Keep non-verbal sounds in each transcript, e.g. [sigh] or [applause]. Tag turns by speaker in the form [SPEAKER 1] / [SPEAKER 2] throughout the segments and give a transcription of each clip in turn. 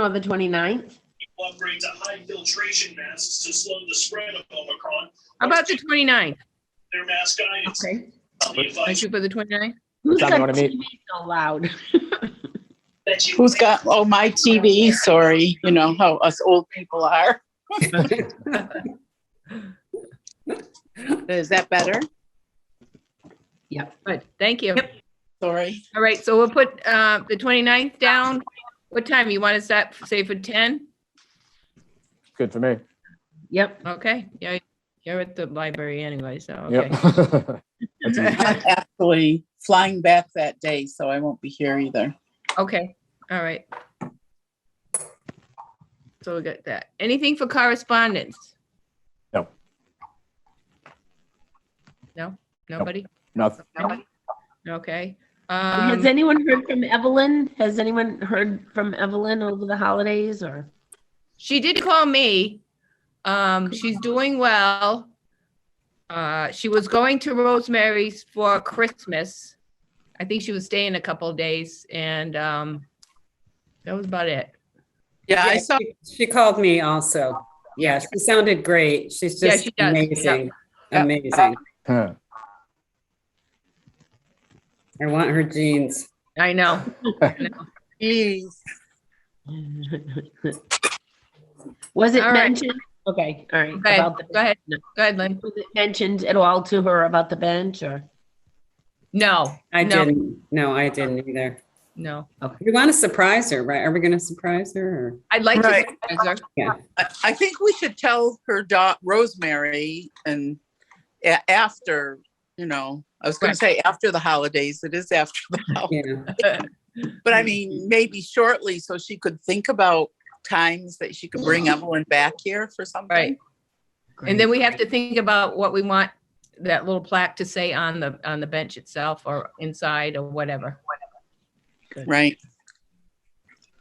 [SPEAKER 1] or the 29th?
[SPEAKER 2] upgrade to high filtration masks to slow the spread of Omicron.
[SPEAKER 3] How about the 29th?
[SPEAKER 2] Their mask guidance,
[SPEAKER 1] Okay.
[SPEAKER 2] on the
[SPEAKER 3] I
[SPEAKER 2] advice
[SPEAKER 3] shoot for the 29th?
[SPEAKER 1] Who's
[SPEAKER 4] John,
[SPEAKER 1] got
[SPEAKER 4] you wanna meet?
[SPEAKER 1] TV So loud. [laughs]
[SPEAKER 2] that you.
[SPEAKER 5] Who's got, oh, my TV, sorry, you know how us old people are. Is that better?
[SPEAKER 1] Yep.
[SPEAKER 3] Good, thank you.
[SPEAKER 5] Sorry.
[SPEAKER 3] All right, so we'll put uh, the 29th down. What time? You want to set, say for 10?
[SPEAKER 4] Good for me.
[SPEAKER 1] Yep.
[SPEAKER 3] Okay, yeah, you're at the library anyway, so, okay.
[SPEAKER 4] Yep. [laughs]
[SPEAKER 5] [laughs]
[SPEAKER 6] [laughs]
[SPEAKER 5] I'm actually flying back that day, so I won't be here either.
[SPEAKER 3] Okay, all right. So we got that. Anything for correspondence?
[SPEAKER 4] No.
[SPEAKER 3] No, nobody?
[SPEAKER 4] Nothing. [laughs]
[SPEAKER 3] Nobody? Okay.
[SPEAKER 1] Has
[SPEAKER 3] Um,
[SPEAKER 1] anyone heard from Evelyn? Has anyone heard from Evelyn over the holidays or? [laughs]
[SPEAKER 3] She did call me. Um, she's doing well. Uh, she was going to Rosemary's for Christmas. I think she was staying a couple of days and, um, that was about it.
[SPEAKER 5] Yeah, I
[SPEAKER 6] Yeah,
[SPEAKER 5] saw,
[SPEAKER 6] she- She called me also. Yeah, she sounded great. She's
[SPEAKER 3] Yeah,
[SPEAKER 6] just
[SPEAKER 3] she does.
[SPEAKER 6] amazing.
[SPEAKER 3] Yeah.
[SPEAKER 6] Amazing.
[SPEAKER 4] Huh.
[SPEAKER 6] I want her jeans.
[SPEAKER 3] I know.
[SPEAKER 5] geez,
[SPEAKER 1] Was it
[SPEAKER 3] All right.
[SPEAKER 1] mentioned? Okay, all right.
[SPEAKER 3] Go ahead,
[SPEAKER 1] about the-
[SPEAKER 3] go ahead. Go ahead, Lynn.
[SPEAKER 1] Was it mentioned at all to her about the bench or?
[SPEAKER 3] No.
[SPEAKER 6] I
[SPEAKER 3] no,
[SPEAKER 6] didn't. No, I didn't either.
[SPEAKER 3] No.
[SPEAKER 6] We want to surprise her, right? Are we going to surprise her? or-
[SPEAKER 3] I'd like
[SPEAKER 5] Right.
[SPEAKER 3] to. surprise her.
[SPEAKER 5] I, I think we should tell her dot Rosemary and a- after, you know, I was gonna
[SPEAKER 3] Right.
[SPEAKER 5] say after the holidays, it is after the holidays.
[SPEAKER 6] Yeah.
[SPEAKER 5] But
[SPEAKER 4] Mm-hmm.
[SPEAKER 5] I mean, maybe shortly, so she could think about times that she could bring
[SPEAKER 4] Mm-hmm.
[SPEAKER 5] Evelyn back here for something.
[SPEAKER 3] Right. And then we have to think about what we want that little plaque to say on the, on the bench itself or inside or whatever.
[SPEAKER 5] Right.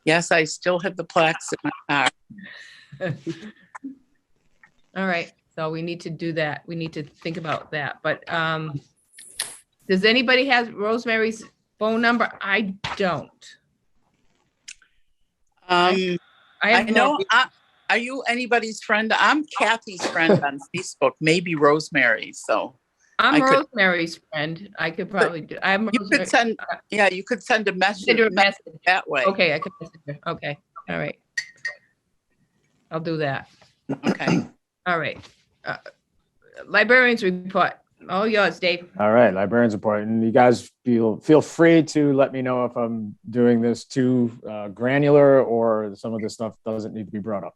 [SPEAKER 5] Yes, I still have the plaques in my car.
[SPEAKER 3] All right, so we need to do that. We need to think about that, but, um, does anybody have Rosemary's phone number? I don't.
[SPEAKER 5] Um,
[SPEAKER 3] I
[SPEAKER 5] I
[SPEAKER 3] have
[SPEAKER 5] know,
[SPEAKER 3] no,
[SPEAKER 5] I- are you anybody's friend? I'm Kathy's friend on Facebook, maybe Rosemary's, so. I
[SPEAKER 3] I'm
[SPEAKER 5] could-
[SPEAKER 3] Rosemary's friend. I could probably do, I'm
[SPEAKER 5] You
[SPEAKER 3] Rosemary.
[SPEAKER 5] could send, yeah, you could send a message
[SPEAKER 3] Send her a message.
[SPEAKER 5] that way.
[SPEAKER 3] Okay, I could, message her. okay, all right. I'll do that.
[SPEAKER 5] Okay.
[SPEAKER 3] All right. Uh, Librarians report, all yours, Dave.
[SPEAKER 4] All right, librarians report, and you guys feel feel free to let me know if I'm doing this too uh, granular or some of this stuff doesn't need to be brought up.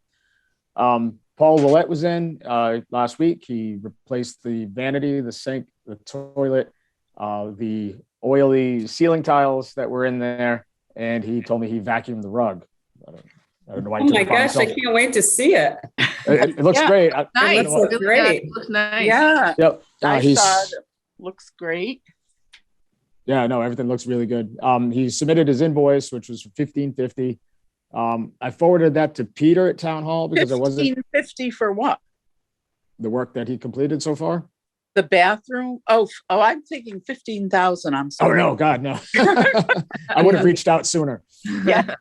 [SPEAKER 4] Um, Paul Willett was in uh, last week. He replaced the vanity, the sink, the toilet, uh, the oily ceiling tiles that were in there, and he told me he vacuumed the rug. I don't, I don't know why.
[SPEAKER 6] Oh
[SPEAKER 4] He took
[SPEAKER 6] my
[SPEAKER 4] it upon
[SPEAKER 6] gosh, I
[SPEAKER 4] himself.
[SPEAKER 6] can't wait to see it.
[SPEAKER 4] It, it looks
[SPEAKER 5] Yeah.
[SPEAKER 4] great. I- I
[SPEAKER 3] Nice.
[SPEAKER 4] don't know what-
[SPEAKER 6] Looks
[SPEAKER 3] Really
[SPEAKER 6] great.
[SPEAKER 3] good. Looks nice.
[SPEAKER 5] Yeah,
[SPEAKER 4] Yep. Uh,
[SPEAKER 5] I
[SPEAKER 4] he's-
[SPEAKER 5] saw it. Looks great.
[SPEAKER 4] Yeah, no, everything looks really good. Um, he submitted his invoice, which was for fifteen fifty. Um, I forwarded that to Peter at town hall because it wasn't
[SPEAKER 5] Fifteen fifty for what?
[SPEAKER 4] the work that he completed so far.
[SPEAKER 5] The bathroom? Oh, f- oh, I'm thinking fifteen thousand, I'm
[SPEAKER 4] Oh
[SPEAKER 5] sorry.
[SPEAKER 4] no, God,
[SPEAKER 5] [laughs]
[SPEAKER 4] no. I would have reached out sooner.
[SPEAKER 5] Yeah.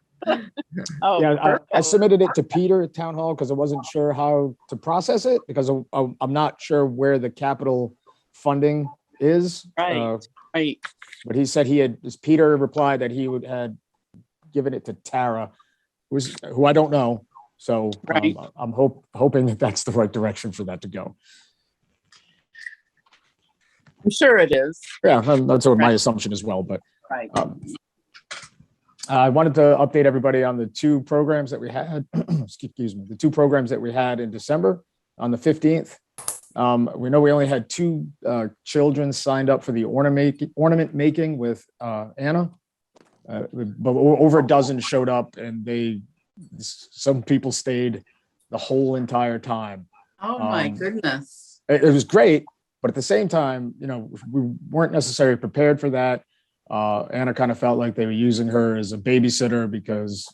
[SPEAKER 5] Oh,
[SPEAKER 4] Yeah, I, I
[SPEAKER 5] perfect.
[SPEAKER 4] submitted it to Peter at town hall because I wasn't sure how to process it because I'm, I'm I'm not sure where the capital funding is.
[SPEAKER 5] Right.
[SPEAKER 4] Uh,
[SPEAKER 5] Right.
[SPEAKER 4] But he said he had, as Peter replied that he would had given it to Tara, who's, who I don't know. So
[SPEAKER 5] Right.
[SPEAKER 4] um, I'm hope, hoping that that's the right direction for that to go.
[SPEAKER 5] I'm sure it is.
[SPEAKER 4] Yeah, that- that's what my
[SPEAKER 5] Right.
[SPEAKER 4] assumption as well, but
[SPEAKER 5] Right.
[SPEAKER 4] um, I wanted to update everybody on the two programs that we had, [clears throat] excuse me, the two programs that we had in December on the 15th. Um, We know we only had two uh, children signed up for the ornament, ornament making with uh, Anna. Uh, But o- over a dozen showed up and they, s- some people stayed the whole entire time
[SPEAKER 5] Oh, my
[SPEAKER 4] Um,
[SPEAKER 5] goodness.
[SPEAKER 4] it, it was great, but at the same time, you know, we weren't necessarily prepared for that. Uh, Anna kind of felt like they were using her as a babysitter because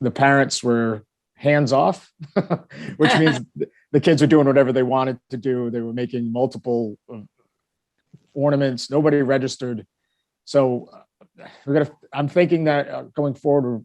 [SPEAKER 4] the parents were hands off, [laughs] which means th- the kids were doing whatever they wanted to do. They were making multiple uh, ornaments. Nobody registered. So uh, we're gonna. I'm thinking that uh, going forward,